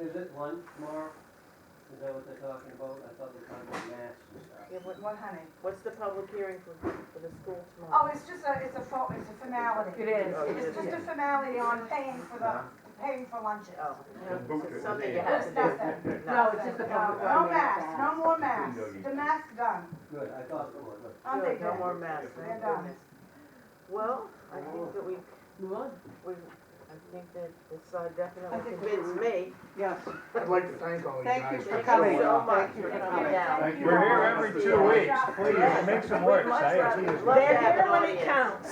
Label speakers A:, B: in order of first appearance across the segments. A: Is it one tomorrow? Is that what they're talking about? I thought they were talking about masks and stuff.
B: Yeah, what-
C: What, honey?
B: What's the public hearing for, for the
C: Oh,
B: school tomorrow?
C: it's just a, it's a, fo- it's a formality.
B: It
D: Oh,
B: is.
C: It's just a formality on paying for the, paying for lunches.
B: Oh,
E: The book
B: it's
E: is
B: something you
E: there.
B: have to
C: There's
B: do.
C: nothing.
B: No,
F: it's just a
C: No,
F: public
C: No
F: comment.
C: masks, no more masks.
E: No need.
C: The mask's done.
A: Good, I thought it was.
C: Aren't they
B: good, no
C: done?
B: more masks,
C: They're
B: thank
C: done.
B: goodness. Well, I think that we,
F: You would?
B: we, I think that this
C: I
B: uh, definitely
C: think
B: convinced me.
F: Yes.
E: I'd like to thank all you guys.
F: Thank you for
B: Thank
F: coming.
B: you so much
F: Thank you
B: for
F: for
B: coming
F: coming.
B: down.
G: We're here every two weeks,
B: Yes.
G: please, make some work,
B: We'd much rather-
G: say
B: we'd
G: it.
B: love to
F: They're
B: have
F: here
B: an
F: when it
B: audience.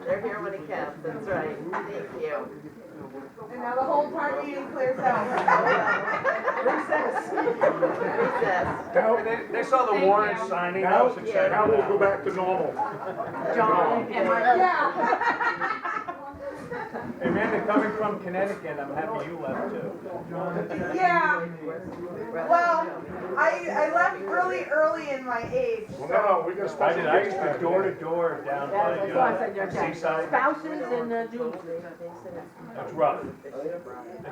B: They're here when it counts, that's right, thank you.
C: And now the whole party meeting clears out.
B: Recess.
E: Now,
G: They saw the warrant signing,
E: now,
G: now,
E: now we'll go back to normal.
F: John and my,
C: Yeah.
G: and man, they're coming from Connecticut, I'm happy you left too.
H: Yeah, well, I, I left really early in my age,
E: Well,
H: so-
E: no, no, we got
G: I
E: special.
G: did, I used to door to door down by
F: that's why I said you're
G: uh,
F: okay.
G: Seaside,
F: Spouses and uh, Julie.
G: that's rough.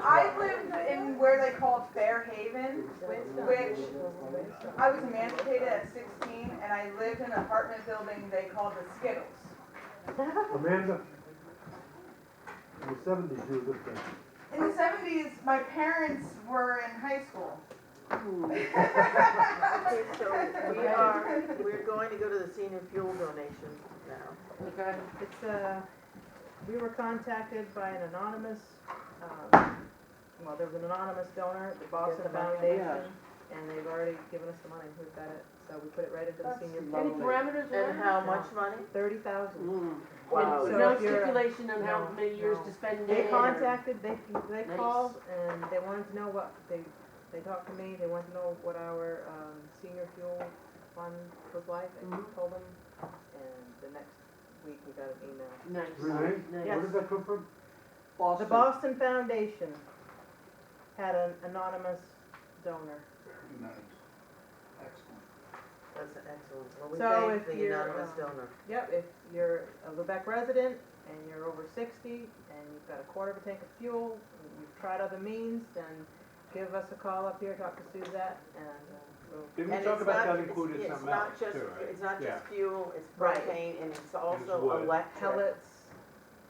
H: I lived in where they called Fair Haven, which I was emancipated at sixteen, and I lived in an apartment building they called the Skittles.
I: Amanda, in the seventies, you were with us.
H: In the seventies, my parents were in high school.
B: Okay, so we are, we're going to go to the senior fuel donation now.
F: Okay.
D: It's uh we were contacted by an anonymous, um, well, there was an anonymous donor, the Boston
B: Get the money.
D: Foundation, and they've already given us the money, we've got it, so we put it right into the
H: That's
D: senior
F: Any
D: fund.
F: parameters
B: And
F: there?
B: how much money?
D: Thirty thousand.
F: Mm.
B: Wow.
F: And
D: Mm-hmm. So
F: No
D: if you're-
F: stipulation on how
D: no,
F: many years
D: no.
F: to spend
D: They
F: it or-
D: contacted, they, they
F: Nice.
D: called, and they wanted to know what, they, they talked to me, they wanted to know what our, um, senior fuel fund was like, and
B: Mm-hmm.
F: Mhm.
D: told them, and the next week we got an email.
F: Nice.
I: Renee, where
F: Nice.
I: did that come from?
D: The
F: Boston.
D: Boston Foundation had an anonymous donor.
B: That's excellent. Well, we
D: So
B: thank
D: if
B: the
D: you're,
B: anonymous
D: um,
B: donor.
D: Yep, if you're a Lubec resident and you're over sixty and you've got a quarter of a tank of fuel, and you've tried other means, then give us a call up here, talk to Suzette and uh, we'll.
G: Didn't
B: And
G: we talk
B: it's
G: about
B: not-
G: that
B: it's-
G: included
B: it's
G: something
B: not
G: else
B: just-
G: too, right?
B: It's not just
G: Yeah.
B: fuel, it's
D: Right.
B: propane, and it's
G: wood.
B: also electric,
D: Pellets,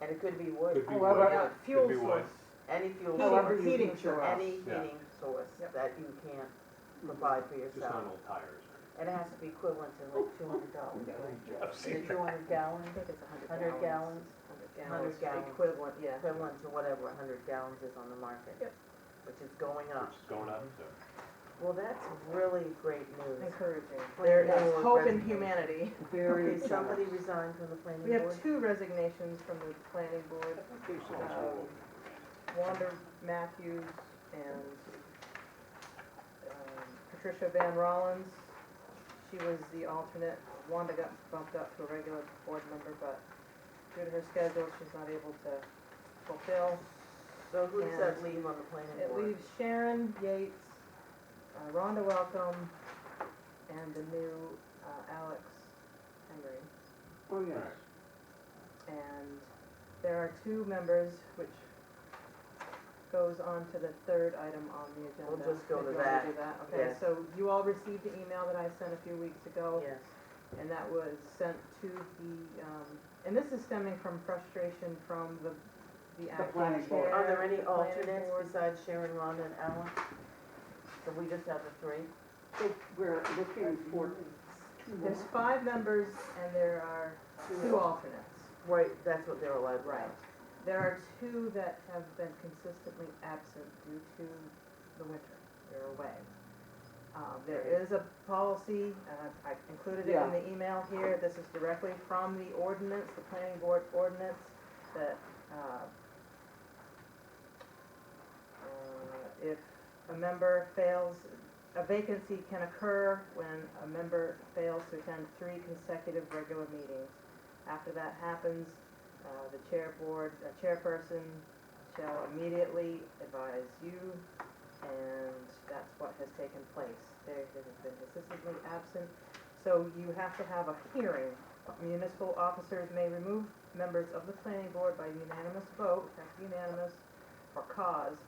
B: and it could be wood,
G: Could be
I: However-
G: wood,
D: yeah,
G: could
D: fuel
G: be wood.
D: source.
B: any fuel,
D: Heating,
B: source,
I: However you
D: heating
I: heat
D: source.
I: your
B: any
G: Yeah.
B: heating source
D: Yep.
B: that you can't provide for
G: Just not
B: yourself.
G: old tires.
B: And it has to be equivalent to like two hundred dollars.
G: I've
B: Is it
G: seen
B: two hundred
D: I
B: gallons,
D: think it's a
B: hundred
D: hundred
B: gallons,
D: gallons.
B: Hundred gallons.
D: Equivalent, yeah.
B: equivalent to whatever hundred gallons is on the market.
D: Yep.
B: Which is going
G: that,
B: up.
G: which is going up, so.
B: Well, that's really great news.
D: Encouraging.
B: There
D: There is
B: is
D: hope in
B: resident-
D: humanity.
F: Very
B: Okay, somebody resigned from the planning
D: We
B: board.
D: have two resignations from the planning board. Um, Wanda Matthews and um, Patricia Van Rollins. She was the alternate. Wanda got bumped up to a regular board member, but due to her schedule, she's not able to fulfill.
B: So who does that
D: and
B: leave on the planning
D: It
B: board?
D: leaves Sharon Yates, uh, Rhonda Welcome, and the new uh, Alex Henry.
F: Oh,
G: All
F: yes.
G: right.
D: And there are two members, which goes on to the third item on the agenda.
B: We'll just go to
D: If you wanna
B: that.
D: do Okay,
B: Yes.
D: so you all received the email that I sent a few weeks ago,
B: Yes.
D: and that was sent to the, um, and this is stemming from frustration from the, the acting
F: planning board.
D: chair.
B: Are there any
D: the planning
B: alternates
D: board.
B: besides Sharon, Rhonda, and Alan? So we just have the three?
F: It- We're looking for two more.
D: There's five members and there are two alternates.
B: Right, that's what they're allowed to
D: Right. There are two that have been consistently absent due to the winter, they're away. Uh, There is a policy, uh, I included it in
F: Yeah.
D: the email here, this is directly from the ordinance, the planning board ordinance, that uh, uh, if a member fails, a vacancy can occur when a member fails to attend three consecutive regular meetings. After that happens, uh, the chair board, uh, chairperson shall immediately advise you, and that's what has taken place. There has been consistently absent, so you have to have a hearing. Municipal officers may remove members of the planning board by unanimous vote, that's unanimous, for cause